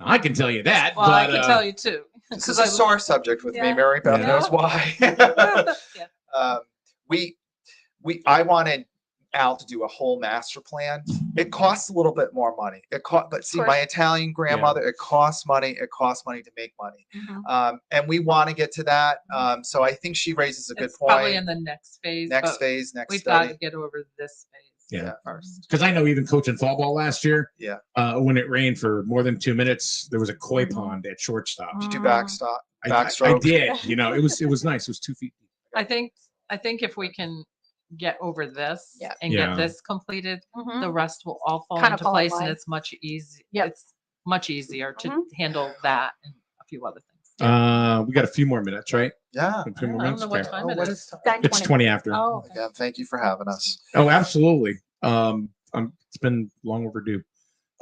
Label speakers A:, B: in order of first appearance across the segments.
A: I can tell you that.
B: Well, I
A: but,
B: can
A: uh,
B: tell you too.
C: This
B: 'cause
C: is
B: I
C: a
B: look-
C: sore subject with me.
B: Yeah.
C: Mary Beth
A: Yeah.
C: knows why.
B: Yeah.
C: um, we we I wanted Al to do a whole master plan. It costs a little bit more money. It cost, but see, my
B: course.
C: Italian grandmother, it costs money. It costs money to make money,
B: Mhm.
C: um, and we want to get to that. Um, so I think she raises a good
B: It's Probably
C: point.
B: in the next phase.
C: Next
B: but
C: phase, next
B: We've got
C: study.
B: to get over this phase
A: Yeah.
B: first.
A: because I know even coaching fall ball last year,
C: Yeah.
A: uh, when it rained for more than two minutes, there was a koi
B: Mm-hmm.
A: pond at shortstop.
C: Did
B: Oh.
C: you backstop?
A: I- I, I,
C: Backstroke.
A: did, you know, it was it was nice. It was two feet.
B: I think, I think if we can get over this
D: Yeah. Mm-hmm.
B: and
A: Yeah.
B: get this completed, the rest will all fall
D: Kinda
B: into
D: fall in
B: place and
D: line.
B: it's much easy.
D: Yep.
B: It's much easier to
D: Mhm.
B: handle that and a few other things.
A: Uh, we got a few more minutes, right?
C: Yeah.
A: A
B: I
A: few
B: don't
A: more
B: I don't
A: minutes.
B: know what
A: Okay.
B: time
C: Oh,
B: it
C: what
B: is.
C: is time?
D: Nine
A: It's
D: twenty.
A: twenty after. Oh,
D: Oh, okay.
C: Again, thank you for having us.
A: absolutely. Um, um, it's been long overdue.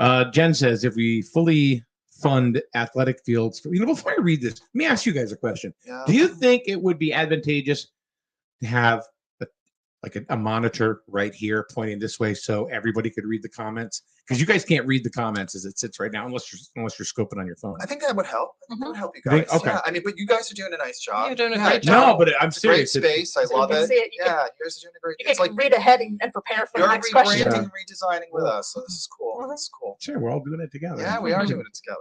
A: Uh, Jen says if we fully fund athletic fields, you know, before I read this, let me ask you guys a question.
C: Yeah.
A: Do you think it would be advantageous to have a, like a, a monitor right here pointing this way so everybody could read the comments? Because you guys can't read the comments as it sits right now unless you're unless you're scoping on your phone.
C: I think that would help. I think That
B: Mhm.
C: would help you
A: You think-
C: guys.
A: okay.
C: Yeah, I mean, but you guys are doing a nice job.
B: You're doing a
C: Yeah,
B: great
A: No,
B: job.
A: but I'm
C: It's a great
A: serious. it-
C: space. I
D: So you
C: love
D: can
C: it.
D: see it, you can-
C: Yeah, yours are doing a great.
D: You
C: It's like
D: can read ahead and, and prepare for
C: you're
D: the next question.
C: rebranding, redesigning with us. So this is cool.
D: Mhm.
C: This is cool.
A: Sure, we're all doing it together.
C: Yeah, we are
A: Mhm.
C: doing it together.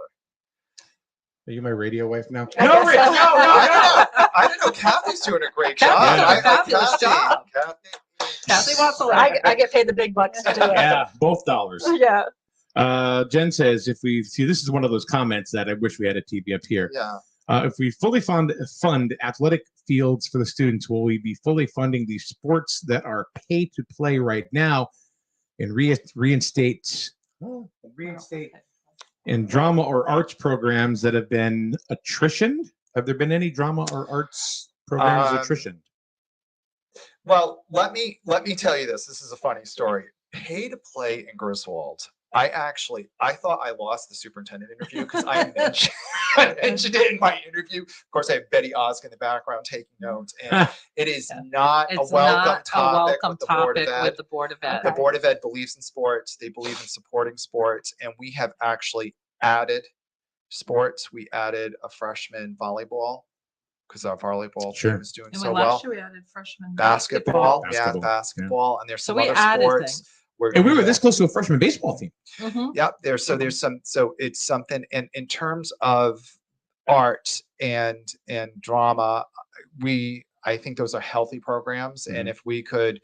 A: Are you my radio wife now?
D: I
A: No,
D: guess
A: Rick, no,
D: so.
A: no,
C: I
A: no.
C: don't know. I don't know. Kathy's doing a great job.
B: Kathy's
A: doing a
C: I- I-
B: fabulous
C: Kathy-
B: job.
C: Kathy-
B: Kathy wants a lot.
D: I, I get paid the big bucks to do it.
A: Yeah, both dollars.
D: Yeah.
A: Uh, Jen says, if we see, this is one of those comments that I wish we had a TV up here.
C: Yeah.
A: Uh, if we fully fund fund athletic fields for the students, will we be fully funding these sports that are pay to play right now, and re- reinstate oh, reinstate and drama or arts programs that have been attritioned? Have there been any drama or arts programs
C: Um,
A: attritioned?
C: Well, let me let me tell you this. This is a funny story. Pay to play in Griswold. I actually I thought I lost the superintendent interview because I mentioned I mentioned it in my interview. Of course, I have Betty Osk in the background taking notes, and it is
B: Mm. Yeah.
C: not a
B: It's
C: welcome
B: not a
C: topic
B: welcome
C: with the board of
B: topic
C: ed.
B: with the Board of
C: The
B: Ed.
C: Board of Ed believes in sports, they believe in supporting sports, and we have actually added sports. We added a freshman volleyball because our volleyball
A: Sure.
C: team is doing
B: And we
C: so well.
B: last year we added freshman
A: Basketball,
C: Basketball, yeah,
A: yeah.
C: basketball, and there's
B: So
C: some
B: we
C: other
B: added
C: sports.
B: things.
C: we're
A: and we
C: gonna
A: were
C: do.
A: this close to a freshman baseball team.
B: Mhm.
C: Yep, there's so there's some so it's something and in terms of art and and drama, we I think those are healthy programs.
A: Mm-hmm.
C: And if we could,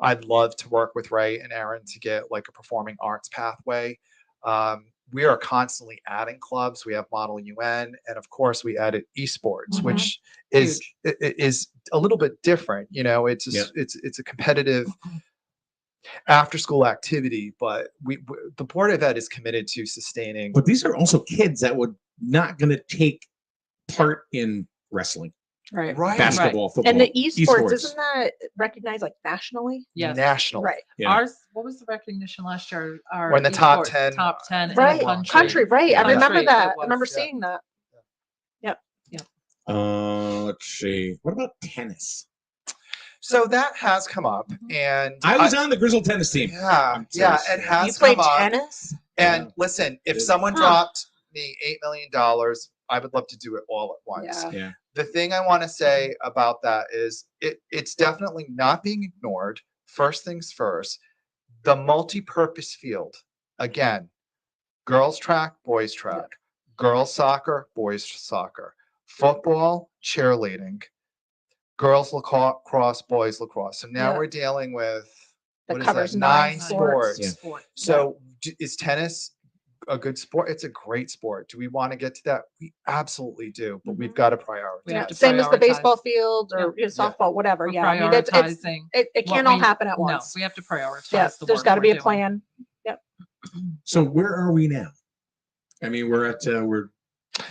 C: I'd love to work with Ray and Aaron to get like a performing arts pathway. Um, we are constantly adding clubs. We have Model UN, and of course, we added esports,
B: Mhm.
C: which is i- i- is a little bit different. You know, it's a
A: Yeah. Mm-hmm.
C: s- it's it's a competitive after school activity, but we, we the board of ed is committed to sustaining.
A: But these are also kids that would not going to take part in wrestling,
D: Right.
C: Right.
A: basketball, football.
D: And the E esports,
A: Esports.
D: isn't that recognized like nationally?
B: Yes.
C: National.
D: Right.
A: Yeah.
B: Ours, what was the recognition last year? Our
C: We're in the top
B: esports,
C: 10,
B: Top ten. in the
D: Right.
C: country.
D: Country, right. I
B: Country,
D: remember
B: it
D: that. I
B: was,
D: remember
B: yeah.
D: seeing that.
A: Uh, let's see. What about tennis?
C: So that has come up,
B: Mhm.
C: and
A: Mm-hmm. I was on the Grizzle tennis team.
C: yeah,
A: I'm
C: yeah,
A: serious.
C: it
A: You
D: You
C: has
D: play
C: come up.
D: tennis?
C: And
A: Yeah.
C: listen, if
A: Big.
C: someone
D: Huh.
C: dropped me eight million dollars, I would love to do it all at once.
D: Yeah.
A: Yeah.
C: The thing I want to say about that is it it's definitely not being ignored. First things first, the multi-purpose field. Again, girls track, boys track, girls soccer, boys soccer, football, cheerleading, girls lacrosse, boys lacrosse. So now
D: Yeah.
C: we're dealing with
D: That
C: what is
D: covers
C: nine
D: nine sports.
C: sports.
A: Yeah.
B: Sport.
C: So d- is tennis a good sport? It's a great sport. Do we want to get to that? We absolutely do, but we've
D: Mhm.
C: got to prioritize.
B: We have to
D: Same as the
B: prioritize.
D: baseball field or you know,
C: Yeah.
D: softball, whatever.
B: We're
D: Yeah. I mean, it's, it's,
B: prioritizing.
D: it, it
B: what
D: can't all
B: we-
D: happen at
B: No,
D: once.
B: we have to prioritize.
D: Yeah.
B: the
D: There's
B: work
D: got to
B: we're
D: be a
B: doing.
D: plan.
A: So where are we now? I mean, we're at uh, we're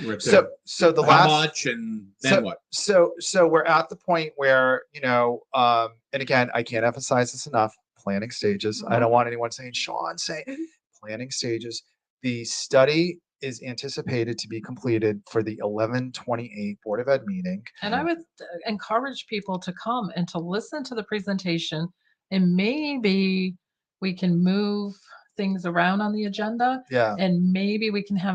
A: we're at
C: So,
A: uh,
C: so the
A: how
C: last,
A: much and then
C: so-
A: what?
C: so, so we're at the point where you know, um, and again, I can't emphasize this enough. Planning stages. I don't want anyone saying, "Sean, say."
D: Mhm.
C: Planning stages. The study is anticipated to be completed for the 1128 Board of Ed meeting.
B: And I would uh, encourage people to come and to listen to the presentation and maybe we can move things around on the agenda
C: Yeah.
B: and maybe we can have